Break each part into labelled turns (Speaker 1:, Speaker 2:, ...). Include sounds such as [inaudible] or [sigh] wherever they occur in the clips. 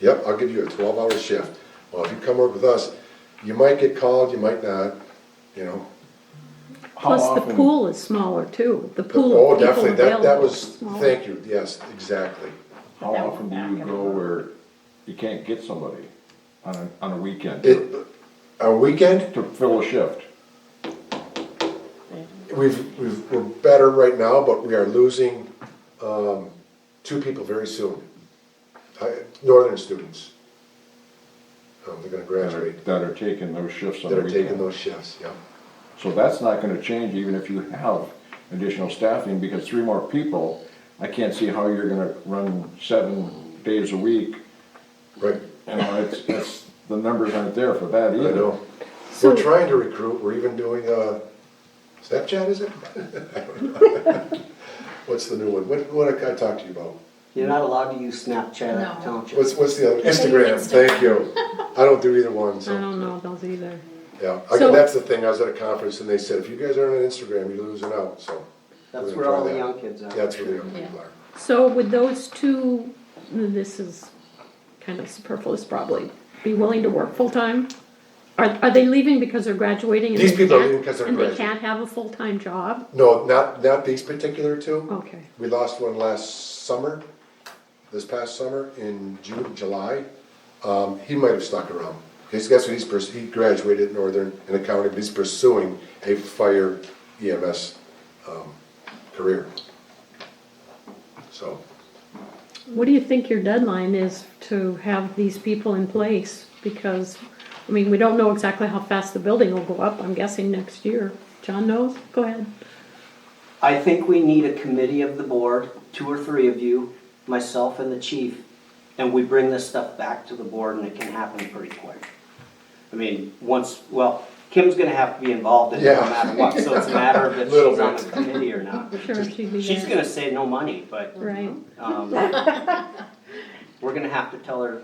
Speaker 1: Yep, I'll give you a twelve-hour shift. Well, if you come work with us, you might get called, you might not, you know.
Speaker 2: How
Speaker 3: Plus, the
Speaker 2: often-
Speaker 3: pool is smaller too, the pool
Speaker 1: Oh,
Speaker 3: of people
Speaker 1: definitely, that, that
Speaker 3: available is
Speaker 1: was,
Speaker 3: smaller.
Speaker 1: thank you, yes, exactly.
Speaker 2: How
Speaker 3: That
Speaker 2: often do
Speaker 3: would
Speaker 2: you
Speaker 3: not
Speaker 2: go where you can't get somebody on a, on a weekend
Speaker 1: It,
Speaker 2: to
Speaker 1: a weekend,
Speaker 2: to fill a shift?
Speaker 1: we've, we've, we're better right now, but we are losing, um, two people very soon. Uh, Northern students. Um, they're gonna
Speaker 2: That are-
Speaker 1: graduate,
Speaker 2: that are taking those shifts on
Speaker 1: that
Speaker 2: the
Speaker 1: are taking
Speaker 2: weekend.
Speaker 1: those shifts, yeah.
Speaker 2: So that's not gonna change even if you have additional staffing, because three more people, I can't see how you're gonna run seven days a week.
Speaker 1: Right,
Speaker 2: You know, it's, it's, the numbers aren't there for that
Speaker 1: I
Speaker 2: either.
Speaker 1: know.
Speaker 3: So-
Speaker 1: We're trying to recruit, we're even doing, uh, Snapchat, is it? [laughs] I don't know. [laughs] What's the new one? What, what I talked to you about?
Speaker 4: You're not allowed to use Snapchat at the
Speaker 5: No.
Speaker 4: township.
Speaker 1: What's, what's the other, Instagram, thank you. I don't do either one,
Speaker 3: I
Speaker 1: so,
Speaker 3: don't know those either.
Speaker 1: yeah. I-
Speaker 3: So-
Speaker 1: That's the thing, I was at a conference and they said, if you guys aren't on Instagram, you're losing out, so. we're
Speaker 4: That's
Speaker 1: gonna
Speaker 4: where
Speaker 1: try
Speaker 4: all the
Speaker 1: that.
Speaker 4: young kids are.
Speaker 1: That's where the young people
Speaker 5: Yeah.
Speaker 1: are.
Speaker 3: So would those two, this is kind of superfluous probably, be willing to work full-time? Are, are they leaving because they're graduating? and
Speaker 1: These
Speaker 3: they
Speaker 1: people are
Speaker 3: can't-
Speaker 1: leaving 'cause they're
Speaker 3: And they
Speaker 1: graduating.
Speaker 3: can't have a full-time job?
Speaker 1: No, not, not these particular two.
Speaker 3: Okay,
Speaker 1: We lost one last summer, this past summer, in June, July. Um, he might have stuck around. He's, guess what, he's, pers- he graduated Northern in accounting, but he's pursuing a fire EMS, um, career. So.
Speaker 3: what do you think your deadline is to have these people in place? Because, I mean, we don't know exactly how fast the building will go up, I'm guessing next year. John knows, go ahead.
Speaker 4: I think we need a committee of the board, two or three of you, myself and the chief, and we bring this stuff back to the board and it can happen pretty quick. I mean, once, well, Kim's gonna have to be involved in it no
Speaker 1: Yeah.
Speaker 4: matter what, so it's a
Speaker 1: [laughs]
Speaker 4: matter of if
Speaker 1: Little
Speaker 4: she's on
Speaker 1: bit.
Speaker 4: the committee or not.
Speaker 3: Sure, she'd be
Speaker 4: She's
Speaker 3: there.
Speaker 4: gonna say no money, but,
Speaker 3: Right,
Speaker 4: um, we're gonna have to tell her,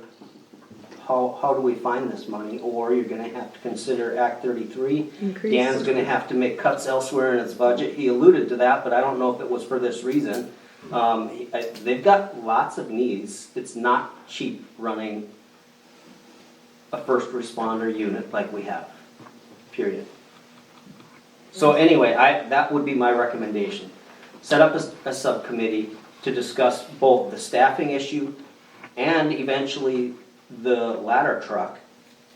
Speaker 4: how, how do we find this money? Or you're gonna have to consider Act thirty-three Dan's
Speaker 3: increase,
Speaker 4: gonna have to make cuts elsewhere in his budget, he alluded to that, but I don't know if it was for this reason. Um, he- I- they've got lots of needs, it's not cheap running a first responder unit like we have, period. So anyway, I, that would be my recommendation. Set up a, s- a subcommittee to discuss both the staffing issue and eventually the ladder truck.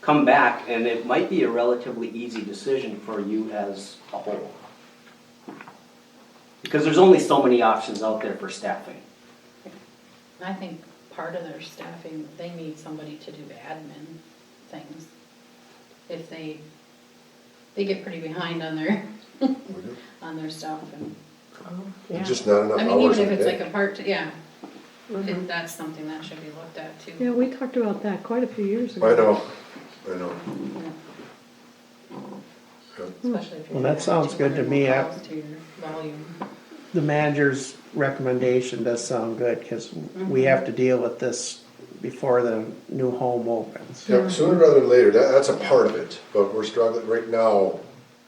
Speaker 4: Come back and it might be a relatively easy decision for you as a whole. Because there's only so many options out there for staffing.
Speaker 5: I think part of their staffing, they need somebody to do admin things. If they, they get pretty behind on their, [laughs]
Speaker 1: we do.
Speaker 5: on their stuff and,
Speaker 3: yeah.
Speaker 1: Just not enough
Speaker 5: I mean,
Speaker 1: hours in
Speaker 5: even if
Speaker 1: a
Speaker 5: it's like
Speaker 1: day.
Speaker 5: a part, yeah,
Speaker 3: Mhm.
Speaker 5: it- that's something that should be looked at too.
Speaker 3: Yeah, we talked about that quite a few years ago.
Speaker 1: I know, I know.
Speaker 5: Yeah,
Speaker 1: Yeah.
Speaker 5: Especially if you're.
Speaker 6: Well, that
Speaker 5: adding
Speaker 6: sounds good to
Speaker 5: 200
Speaker 6: me.
Speaker 5: more
Speaker 6: I-
Speaker 5: calls to your volume.
Speaker 6: The manager's recommendation does sound good, cause we have to deal with this before the new home opens.
Speaker 1: Yeah, sooner rather than later, that, that's a part of it, but we're struggling, right now,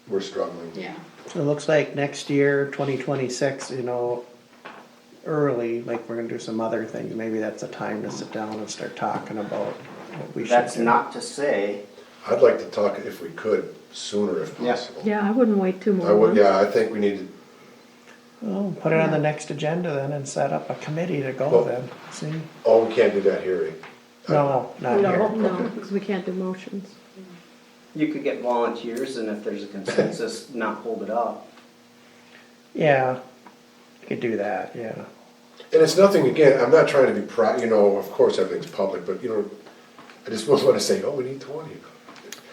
Speaker 1: we're struggling.
Speaker 5: Yeah,
Speaker 6: So It looks like next year, twenty twenty-six, you know, early, like we're gonna do some other things, maybe that's a time to sit down and start talking about what we should do.
Speaker 4: That's not to say,
Speaker 1: I'd like to talk, if we could, sooner if
Speaker 4: Yeah.
Speaker 1: possible.
Speaker 3: Yeah, I wouldn't wait two more
Speaker 1: I would,
Speaker 3: months.
Speaker 1: yeah, I think we need, to-
Speaker 6: Well, put it on the next agenda then and set up a committee to
Speaker 1: Well-
Speaker 6: go then, see?
Speaker 1: oh, we can't do that hearing.
Speaker 6: No, not
Speaker 3: No,
Speaker 6: here.
Speaker 3: no, because we can't do motions.
Speaker 4: you could get volunteers and if there's a consensus, not hold it up.
Speaker 6: Yeah, you could do that, yeah.
Speaker 1: And it's nothing, again, I'm not trying to be proud, you know, of course, everything's public, but you know, I just wouldn't wanna say, oh, we need twenty.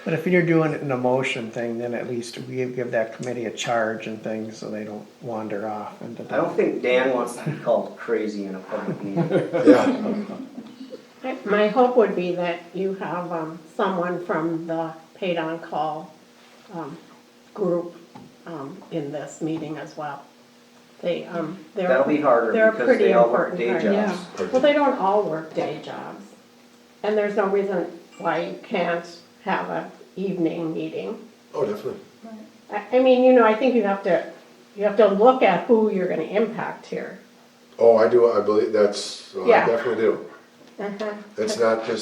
Speaker 6: But if you're doing it in a motion thing, then at least we give that committee a charge and things so they don't wander off into
Speaker 4: I don't
Speaker 6: that.
Speaker 4: think Dan wants to be called crazy in a public meeting.
Speaker 1: Yeah,
Speaker 7: My hope would be that you have um, someone from the paid on-call um, group um, in this meeting as well. They, um, they're.
Speaker 4: That'll be harder
Speaker 7: they're a
Speaker 4: because they
Speaker 7: pretty
Speaker 4: all work
Speaker 7: important
Speaker 4: day
Speaker 7: part.
Speaker 4: jobs.
Speaker 7: Well, they don't all work day jobs. And there's no reason why you can't have an evening meeting.
Speaker 1: oh, definitely.
Speaker 7: I, I mean, you know, I think you have to, you have to look at who you're gonna impact here.
Speaker 1: Oh, I do, I believe, that's, oh, I
Speaker 7: Yeah.
Speaker 1: definitely do. It's not just